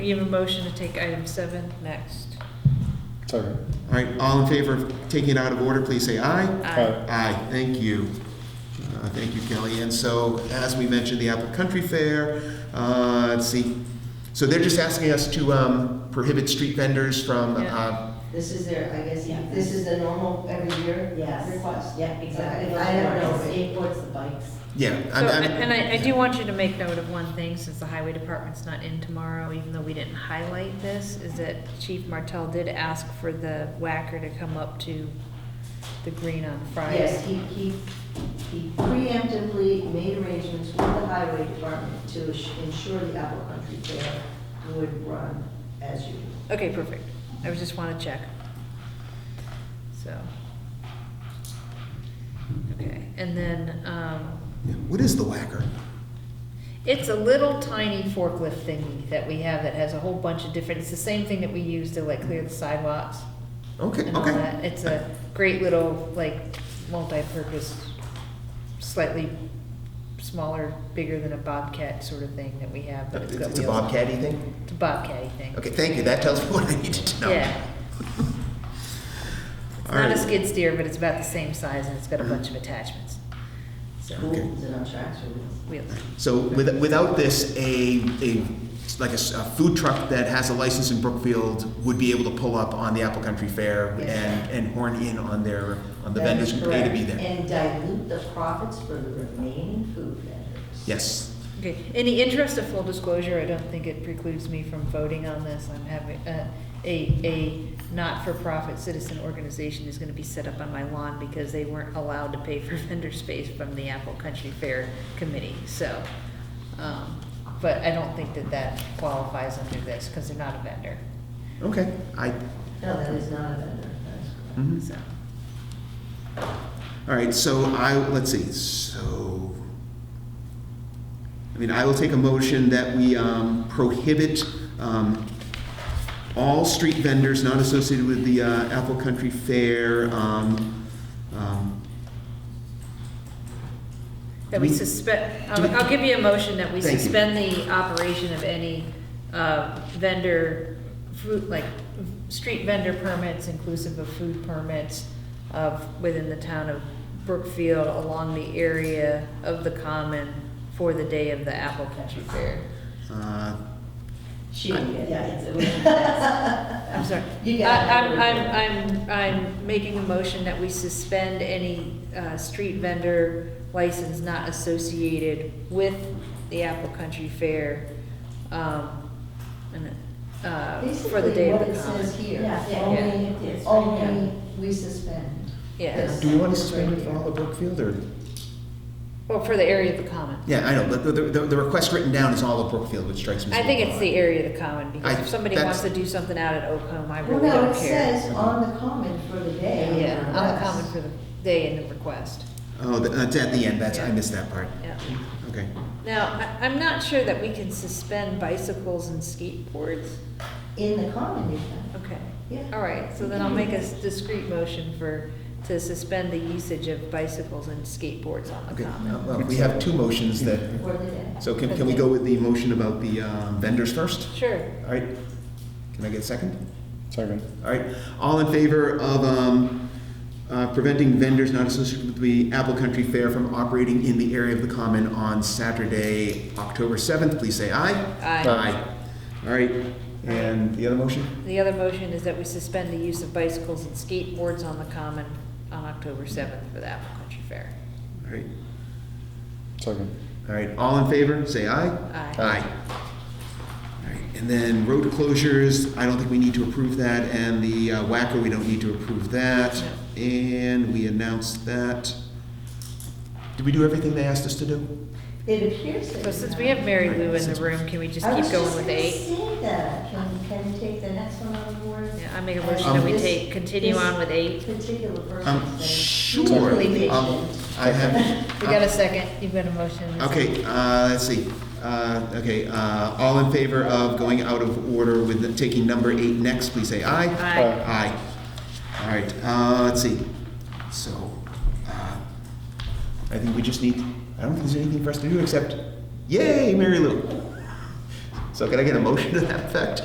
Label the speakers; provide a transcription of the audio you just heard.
Speaker 1: We have a motion to take item seven next.
Speaker 2: Sorry.
Speaker 3: All right, all in favor of taking it out of order, please say aye.
Speaker 1: Aye.
Speaker 3: Aye, thank you. Uh, Thank you, Kelly. And so, as we mentioned, the Apple Country Fair, uh, let's see, so they're just asking us to um, prohibit street vendors from,
Speaker 1: Yeah.
Speaker 3: uh,
Speaker 4: This is their, I guess,
Speaker 5: Yeah.
Speaker 4: this is the normal every year
Speaker 5: Yes.
Speaker 4: request?
Speaker 5: Yeah, exactly.
Speaker 4: I don't know.
Speaker 5: Skateboards, the bikes.
Speaker 3: yeah.
Speaker 1: So,
Speaker 3: I'm- I'm-
Speaker 1: and I, I do want you to make note of one thing, since the highway department's not in tomorrow, even though we didn't highlight this, is that Chief Martell did ask for the whacker to come up to the green on Friday.
Speaker 4: Yes, he, he, he preemptively made arrangements with the highway department to ass- ensure the Apple Country Fair would run as usual.
Speaker 1: Okay, perfect. I was just wanna check. So. Okay, and then, um,
Speaker 3: What is the whacker?
Speaker 1: It's a little tiny forklift thingy that we have that has a whole bunch of different, it's the same thing that we use to like clear the sidewalks
Speaker 3: Okay,
Speaker 1: and all
Speaker 3: okay.
Speaker 1: that. It's a great little, like, multi-purpose, slightly smaller, bigger than a Bobcat sort of thing that we have, but it's got
Speaker 3: It's a
Speaker 1: wheels on it.
Speaker 3: bobcat thing?
Speaker 1: It's a Bobcat thing.
Speaker 3: Okay, thank you, that tells me what I needed to know.
Speaker 1: Yeah. It's
Speaker 3: All
Speaker 1: not a
Speaker 3: right.
Speaker 1: skid steer, but it's about the same size and it's got a bunch of attachments,
Speaker 4: Cool, is it on tracks or wheels?
Speaker 1: wheels.
Speaker 3: So with- without this, a, a, like a s- a food truck that has a license in Brookfield would be able to pull up on the Apple Country Fair
Speaker 4: Yes.
Speaker 3: and, and horn in on their, on the
Speaker 4: That
Speaker 3: vendors
Speaker 4: is
Speaker 3: who pay to be
Speaker 4: correct.
Speaker 3: there.
Speaker 4: And dilute the profits for the remaining food vendors.
Speaker 3: Yes.
Speaker 1: Okay, in the interest of full disclosure, I don't think it precludes me from voting on this. I'm having, uh, a, a not-for-profit citizen organization is gonna be set up on my lawn because they weren't allowed to pay for vendor space from the Apple Country Fair Committee, so. um, But I don't think that that qualifies under this, because they're not a vendor,
Speaker 3: Okay, I,
Speaker 4: No, that is not a vendor, that's
Speaker 3: mhm.
Speaker 4: correct.
Speaker 1: so.
Speaker 3: all right, so I, let's see, so, I mean, I will take a motion that we um, prohibit um, all street vendors not associated with the uh, Apple Country Fair um, um,
Speaker 1: That we
Speaker 3: Do we-
Speaker 1: suspend,
Speaker 3: do we-
Speaker 1: I'll give you a motion that we
Speaker 3: Thank you.
Speaker 1: suspend the operation of any uh, vendor, food, like, street vendor permits inclusive of food permits of, within the town of Brookfield along the area of the common for the day of the Apple Country Fair.
Speaker 3: Uh,
Speaker 4: She, yeah,
Speaker 1: I'm sorry.
Speaker 4: You
Speaker 1: I-
Speaker 4: got it.
Speaker 1: I'm, I'm, I'm, I'm making a motion that we suspend any uh, street vendor license not associated with the Apple Country Fair, um, and, uh, for the day of the
Speaker 4: Basically, what it says
Speaker 1: common.
Speaker 4: here.
Speaker 5: Yeah, yeah.
Speaker 4: Only,
Speaker 5: It's right
Speaker 4: only we suspend.
Speaker 1: Yes,
Speaker 3: Do we want to suspend it for all of Brookfield or?
Speaker 1: well, for the area of the common.
Speaker 3: Yeah, I know, but the, the, the request written down is all of Brookfield, which strikes me. as
Speaker 1: I
Speaker 3: a
Speaker 1: think
Speaker 3: little
Speaker 1: it's the
Speaker 3: odd.
Speaker 1: area of the common, because
Speaker 3: I-
Speaker 1: if somebody wants to
Speaker 3: that's-
Speaker 1: do something out at Oakham, I
Speaker 4: Well,
Speaker 1: really
Speaker 4: no,
Speaker 1: don't
Speaker 4: it
Speaker 1: care.
Speaker 4: says on the common for the day.
Speaker 1: Yeah, on the common
Speaker 4: Yes.
Speaker 1: for the day and the request,
Speaker 3: Oh, the- that's at the end, that's, I
Speaker 1: Yeah.
Speaker 3: missed that part.
Speaker 1: yeah.
Speaker 3: Okay.
Speaker 1: Now, I- I'm not sure that we can suspend bicycles and skateboards.
Speaker 4: In the common, you can.
Speaker 1: Okay.
Speaker 4: Yeah.
Speaker 1: All right, so then I'll make a s- discrete motion for, to suspend the usage of bicycles and skateboards on the
Speaker 3: Okay,
Speaker 1: common.
Speaker 3: well, we have two motions that,
Speaker 4: for the day.
Speaker 3: so can, can we go with the motion about the um, vendors first?
Speaker 1: Sure.
Speaker 3: All right, can I get a second?
Speaker 2: Second.
Speaker 3: All right, all in favor of, um, uh, preventing vendors not associated with the Apple Country Fair from operating in the area of the common on Saturday, October seventh, please say aye.
Speaker 1: Aye.
Speaker 3: All right, and the other motion?
Speaker 1: The other motion is that we suspend the use of bicycles and skateboards on the common on October 7th for the Apple Country Fair.
Speaker 3: All right,
Speaker 2: Second.
Speaker 3: all right, all in favor, say aye.
Speaker 1: Aye.
Speaker 3: All right, And then road closures, I don't think we need to approve that, and the uh, whacker, we don't need to approve that. And we announced that. Did we do everything they asked us to do?
Speaker 4: It appears that.
Speaker 1: So since we have Mary Lou in the room, can we just
Speaker 4: I was
Speaker 1: keep going with
Speaker 4: just
Speaker 1: eight?
Speaker 4: gonna say that, can, can we take the next one on the board?
Speaker 1: Yeah, I make a motion that we
Speaker 4: This-
Speaker 1: take, continue
Speaker 4: this
Speaker 1: on with eight.
Speaker 4: Particular person.
Speaker 3: Um, I'm Um, sure.
Speaker 4: Really
Speaker 3: um,
Speaker 4: patient.
Speaker 3: I have.
Speaker 1: We got a second, you've got a motion. and a second.
Speaker 3: Okay, uh, let's see. Uh, Okay, uh, all in favor of going out of order with the- taking number eight next, please say aye.
Speaker 1: Aye.
Speaker 3: Aye. All right, uh, let's see. So, uh, I think we just need, I don't think there's anything for us to do except, yay, Mary Lou. So can I get a motion to that effect?